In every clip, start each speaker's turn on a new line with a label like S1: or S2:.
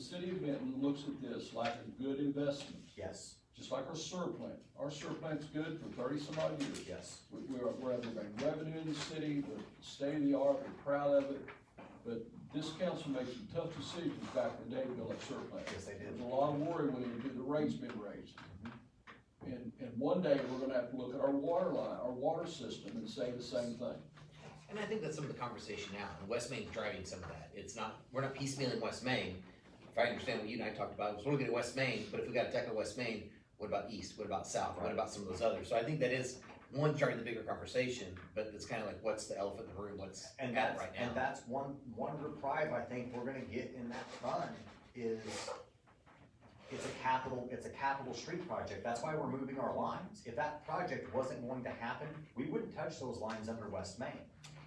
S1: city of Benton looks at this like a good investment,
S2: Yes,
S1: just like our sewer plant. Our sewer plant's good for thirty some odd years.
S2: yes,
S1: We, we are, we're having a revenue in the city, we're state of the art, we're proud of it, but this council made some tough decisions back in the day to build that sewer plant.
S2: yes, they
S1: There
S2: did.
S1: was a lot of worry when it- the rates been raised. And, and one day, we're gonna have to look at our water line, our water system and say the same thing.
S3: And I think that's some of the conversation now, and West Main's driving some of that, it's not, we're not piecemealing West Main. If I understand what you and I talked about, it was we're looking at West Main, but if we got a deck of West Main, what about east, what about south, what
S2: Right.
S3: about some of those others, so I think that is one part of the bigger conversation, but it's kinda like, what's the elephant in the room, what's at
S2: And
S3: it
S2: that's,
S3: right
S2: and
S3: now?
S2: that's one, one reprieve I think we're gonna get in that fund is it's a capital, it's a capital street project. That's why we're moving our lines. If that project wasn't going to happen, we wouldn't touch those lines under West Main.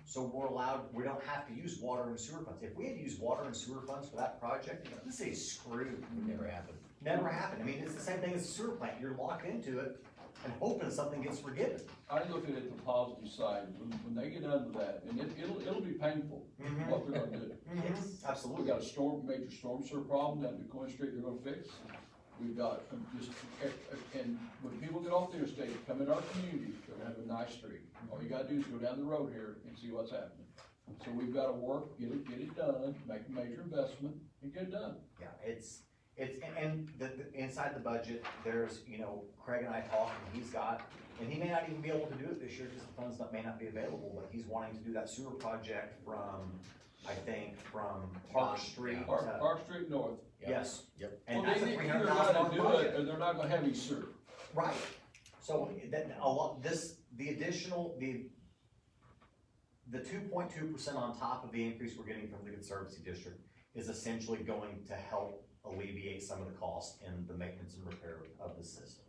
S2: So we're allowed, we don't have to use water and sewer funds. If we had used water and sewer funds for that project, this is screwed.
S3: Would never happen.
S2: Never happened. I mean, it's the same thing as a sewer plant. You're locked into it and hoping something gets forgiven.
S1: I look at it the positive side, when, when they get under that, and it, it'll, it'll be painful, what they're gonna do.
S2: Yes,
S1: We
S2: absolutely.
S1: got a storm, major storm sewer problem down the Coin Street they're gonna fix. We've got, um, just, and- and when people get off the interstate, come in our community, they're gonna have a nice street. All you gotta do is go down the road here and see what's happening. So we've gotta work, get it, get it done, make a major investment, and get it done.
S2: Yeah, it's, it's, and, and the, the, inside the budget, there's, you know, Craig and I talked, and he's got, and he may not even be able to do it this year, because the funds not, may not be available, but he's wanting to do that sewer project from, I think, from Park
S3: Bond,
S2: Street
S3: yeah.
S1: Park,
S2: to,
S1: Park Street North.
S3: Yeah.
S2: yes.
S3: Yep.
S2: And
S1: Well,
S2: that's a
S1: they-
S2: three
S1: they're
S2: hundred
S1: gonna
S2: thousand dollar
S1: do it,
S2: project.
S1: Or they're not gonna have any sewer.
S2: Right, so then a lot, this, the additional, the, the two point two percent on top of the increase we're getting from the Conservancy District is essentially going to help alleviate some of the cost in the maintenance and repair of the system.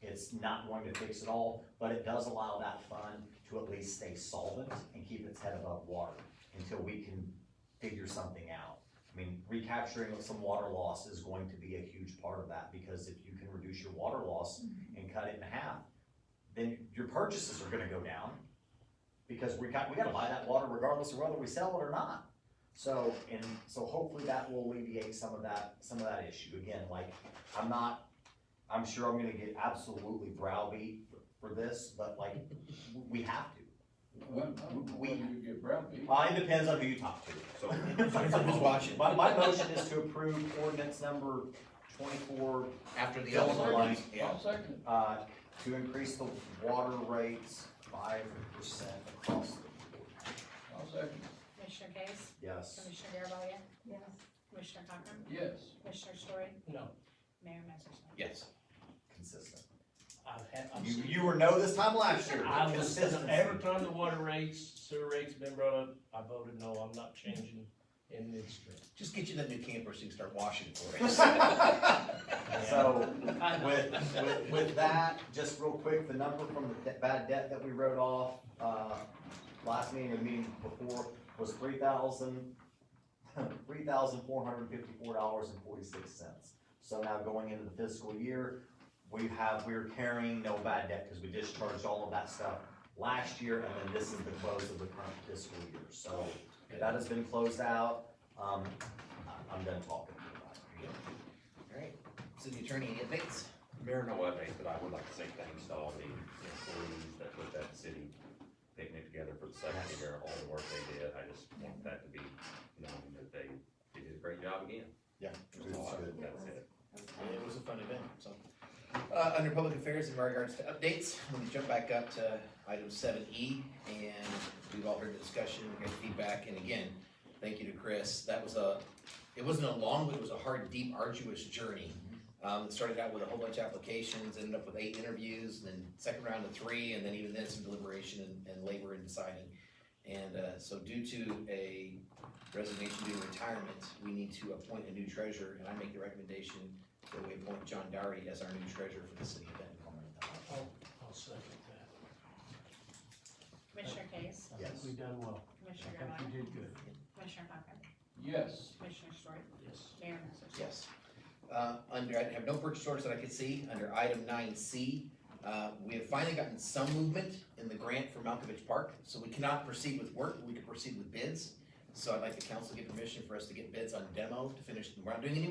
S2: It's not going to fix it all, but it does allow that fund to at least stay solvent and keep its head above water until we can figure something out. I mean, recapturing of some water loss is going to be a huge part of that, because if you can reduce your water loss and cut it in half, then your purchases are gonna go down, because we got, we gotta buy that water regardless of whether we sell it or not. So, and, so hopefully that will alleviate some of that, some of that issue, again, like, I'm not, I'm sure I'm gonna get absolutely browbeat for this, but like, we have to.
S1: Well, I don't know
S2: We-
S1: whether you get brown meat.
S2: Uh, it depends on who you talk to.
S4: So,
S3: Who's watching?
S2: My, my motion is to approve ordinance number twenty-four,
S3: After the
S2: Fill in
S3: other
S2: the
S3: one,
S2: lines.
S3: yeah,
S1: I'll second it.
S2: uh, to increase the water rates five percent across the board.
S1: I'll second it.
S5: Commissioner Case?
S2: Yes.
S5: Commissioner Garvelia?
S6: Yes.
S5: Commissioner Cochran?
S1: Yes.
S5: Commissioner Story?
S7: No,
S5: Mayor Massersohn?
S3: yes,
S2: Consistent.
S7: I've had, I'm,
S2: You, you were no this time last year.
S7: I was,
S2: Consistency.
S7: every time the water rates, sewer rates been brought up, I voted no, I'm not changing in midstream.
S3: just get you that new camper so you can start washing for us.
S2: So,
S7: I-
S2: with, with, with that, just real quick, the number from the de- bad debt that we wrote off, uh, last meeting, or the meeting before, was three thousand, three thousand four hundred fifty-four dollars and forty-six cents. So now going into the fiscal year, we have, we're carrying no bad debt, cause we discharged all of that stuff last year, and then this is the close of the current fiscal year, so that has been closed out, um, I- I'm done talking.
S3: Alright, city attorney, any updates?
S4: Mayor, no updates, but I would like to say thanks to all the employees that put that city picnic together for the second year, all the work they did. I just want that to be known that they, they did a great job again.
S3: Yeah.
S4: That's it.
S3: It was a fun event, so. Uh, under public affairs in regards to updates, let me jump back up to item seven E, and we've all heard the discussion, we got feedback, and again, thank you to Chris, that was a, it wasn't a long, but it was a hard, deep, arduous journey. Um, it started out with a whole bunch of applications, ended up with eight interviews, and then second round of three, and then even then some deliberation and, and labor in deciding. And, uh, so due to a resignation due to retirement, we need to appoint a new treasurer, and I make the recommendation that we appoint John Dowery as our new treasurer for the city of Benton.
S7: I'll second that.
S5: Commissioner Case?
S7: I think
S2: Yes.
S7: we done well.
S5: Commissioner
S7: I think
S5: Garvelia?
S7: we did good,
S5: Commissioner Cochran?
S1: Yes.
S5: Commissioner Story?
S7: yes.
S5: Mayor Massersohn?
S3: Yes. Uh, under, I have no purchase orders that I could see, under item nine C, uh, we have finally gotten some movement in the grant for Malkovich Park, so we cannot proceed with work, but we can proceed with bids. So I'd like the council to get permission for us to get bids on demo to finish, we're not doing any